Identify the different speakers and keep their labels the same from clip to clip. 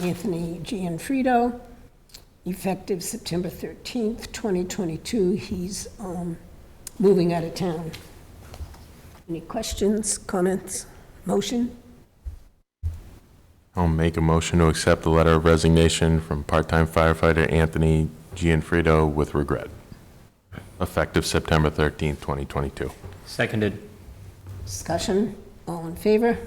Speaker 1: Anthony Gianfrido, effective September 13th, 2022. He's um, moving out of town. Any questions, comments, motion?
Speaker 2: I'll make a motion to accept the letter of resignation from part-time firefighter Anthony Gianfrido with regret, effective September 13th, 2022.
Speaker 3: Seconded.
Speaker 1: Discussion, all in favor?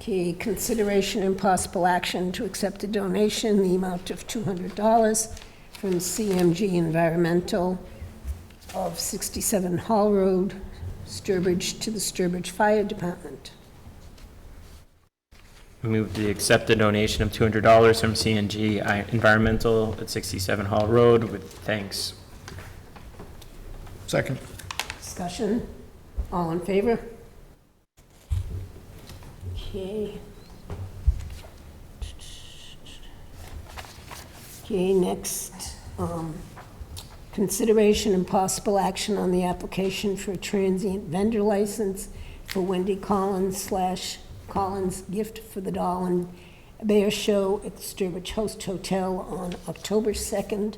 Speaker 1: Okay, consideration and possible action to accept a donation, the amount of $200 from CMG Environmental of 67 Hall Road, Sturbridge, to the Sturbridge Fire Department.
Speaker 3: Move to accept the donation of $200 from CNG I- Environmental at 67 Hall Road with thanks.
Speaker 4: Second.
Speaker 1: Discussion, all in favor? Okay. Okay, next, um, consideration and possible action on the application for a transient vendor license for Wendy Collins slash Collins Gift for the Doll and Bear Show at the Sturbridge Host Hotel on October 2nd,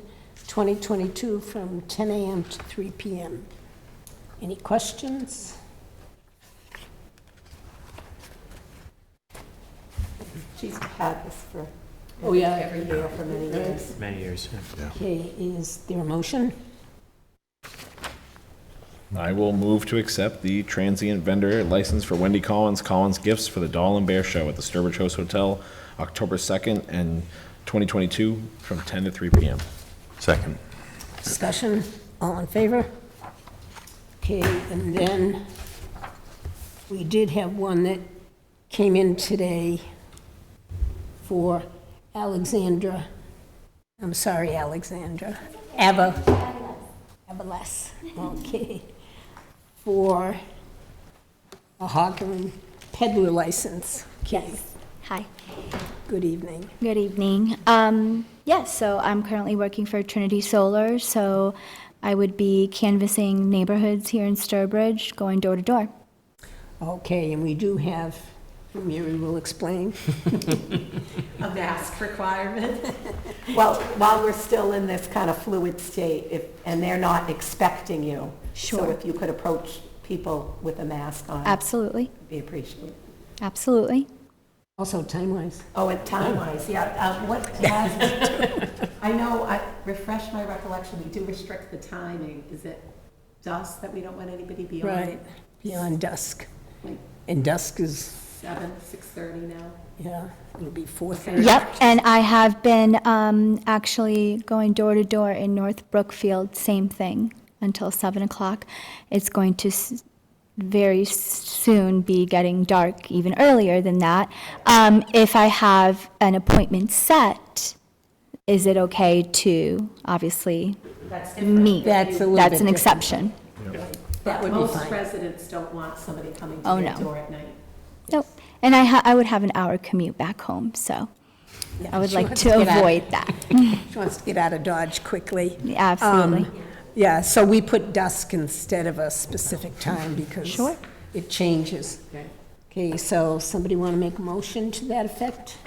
Speaker 1: 2022, from 10 a.m. to 3 p.m. Any questions?
Speaker 5: She's had this for
Speaker 1: Oh, yeah.
Speaker 5: every year for many years.
Speaker 3: Many years.
Speaker 1: Okay, is there a motion?
Speaker 4: I will move to accept the transient vendor license for Wendy Collins, Collins Gifts for the Doll and Bear Show at the Sturbridge Host Hotel, October 2nd and 2022, from 10 to 3 p.m.
Speaker 2: Second.
Speaker 1: Discussion, all in favor? Okay, and then we did have one that came in today for Alexandra, I'm sorry, Alexandra, Ava, Avalas, okay, for a Hawthorne peddler license. Okay,
Speaker 6: Hi,
Speaker 1: good evening.
Speaker 6: good evening. Um, yes, so I'm currently working for Trinity Solar, so I would be canvassing neighborhoods here in Sturbridge, going door to door.
Speaker 1: Okay, and we do have, Mary will explain.
Speaker 5: A mask requirement. Well, while we're still in this kind of fluid state, if, and they're not expecting you. So
Speaker 6: Sure.
Speaker 5: if you could approach people with a mask on, it'd
Speaker 6: Absolutely,
Speaker 5: be appreciated.
Speaker 6: absolutely.
Speaker 1: Also, time-wise,
Speaker 5: Oh, and time-wise, yeah, uh, what has, I know, I, refresh my recollection, we do restrict the timing. Is it dusk that we don't want anybody beyond?
Speaker 1: right, beyond dusk.
Speaker 5: Like
Speaker 1: And dusk is,
Speaker 5: seven, 6:30 now?
Speaker 1: yeah, it'll be 4:30.
Speaker 6: Yep, and I have been um, actually going door to door in North Brookfield, same thing, until 7 o'clock. It's going to s- very soon be getting dark, even earlier than that. Um, If I have an appointment set, is it okay to, obviously, meet?
Speaker 1: That's a little bit
Speaker 6: That's an
Speaker 1: different.
Speaker 6: exception.
Speaker 1: That would be
Speaker 5: Most
Speaker 1: fine.
Speaker 5: residents don't want somebody coming
Speaker 6: Oh,
Speaker 5: to their
Speaker 6: no.
Speaker 5: door at night.
Speaker 6: Nope. And I ha- I would have an hour commute back home, so I would
Speaker 1: she
Speaker 6: like
Speaker 1: wants
Speaker 6: to
Speaker 1: to get out.
Speaker 6: avoid that.
Speaker 1: She wants to get out of Dodge quickly.
Speaker 6: Absolutely.
Speaker 1: Um, Yeah, so we put dusk instead of a specific time because
Speaker 6: Sure.
Speaker 1: it changes. Okay, so somebody want to make a motion to that effect?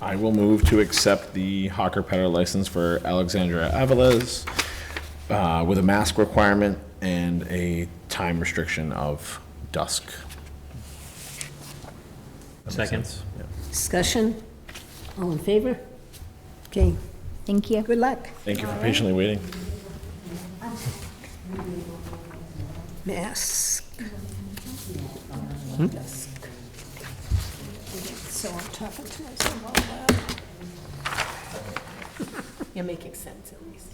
Speaker 4: I will move to accept the hawker Peddler license for Alexandra Avalas uh, with a mask requirement and a time restriction of dusk.
Speaker 3: Seconds.
Speaker 1: Discussion? All in favor? Okay,
Speaker 6: Thank you.
Speaker 1: good luck.
Speaker 4: Thank you for patiently waiting.
Speaker 1: Mask. Mask. So I'm talking to myself out loud.
Speaker 5: You're making sense at least.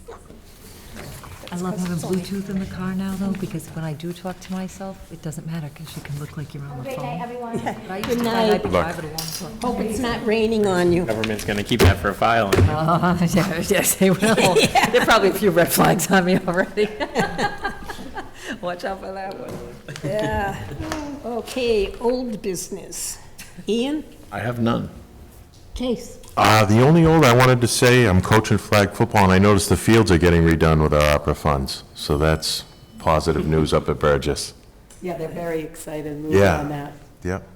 Speaker 7: I love having Bluetooth in the car now, though, because when I do talk to myself, it doesn't matter, because you can look like you're on the phone.
Speaker 6: everyone.
Speaker 7: But I used to
Speaker 1: Good
Speaker 7: find I'd
Speaker 1: night.
Speaker 7: be driving along.
Speaker 1: Hope it's not raining on you.
Speaker 3: Government's going to keep that for a file. and
Speaker 7: Oh, yes, yes, they will. There are probably a few red flags on me already. Watch out for that one.
Speaker 1: Yeah. Okay, old business. Ian?
Speaker 4: I have none.
Speaker 1: Case.
Speaker 2: Uh, The only old I wanted to say, I'm coaching flag football, and I noticed the fields are getting redone with our opera funds. So that's positive news up at Burgess.
Speaker 5: Yeah, they're very excited moving
Speaker 2: Yeah.
Speaker 5: on that.
Speaker 2: Yep.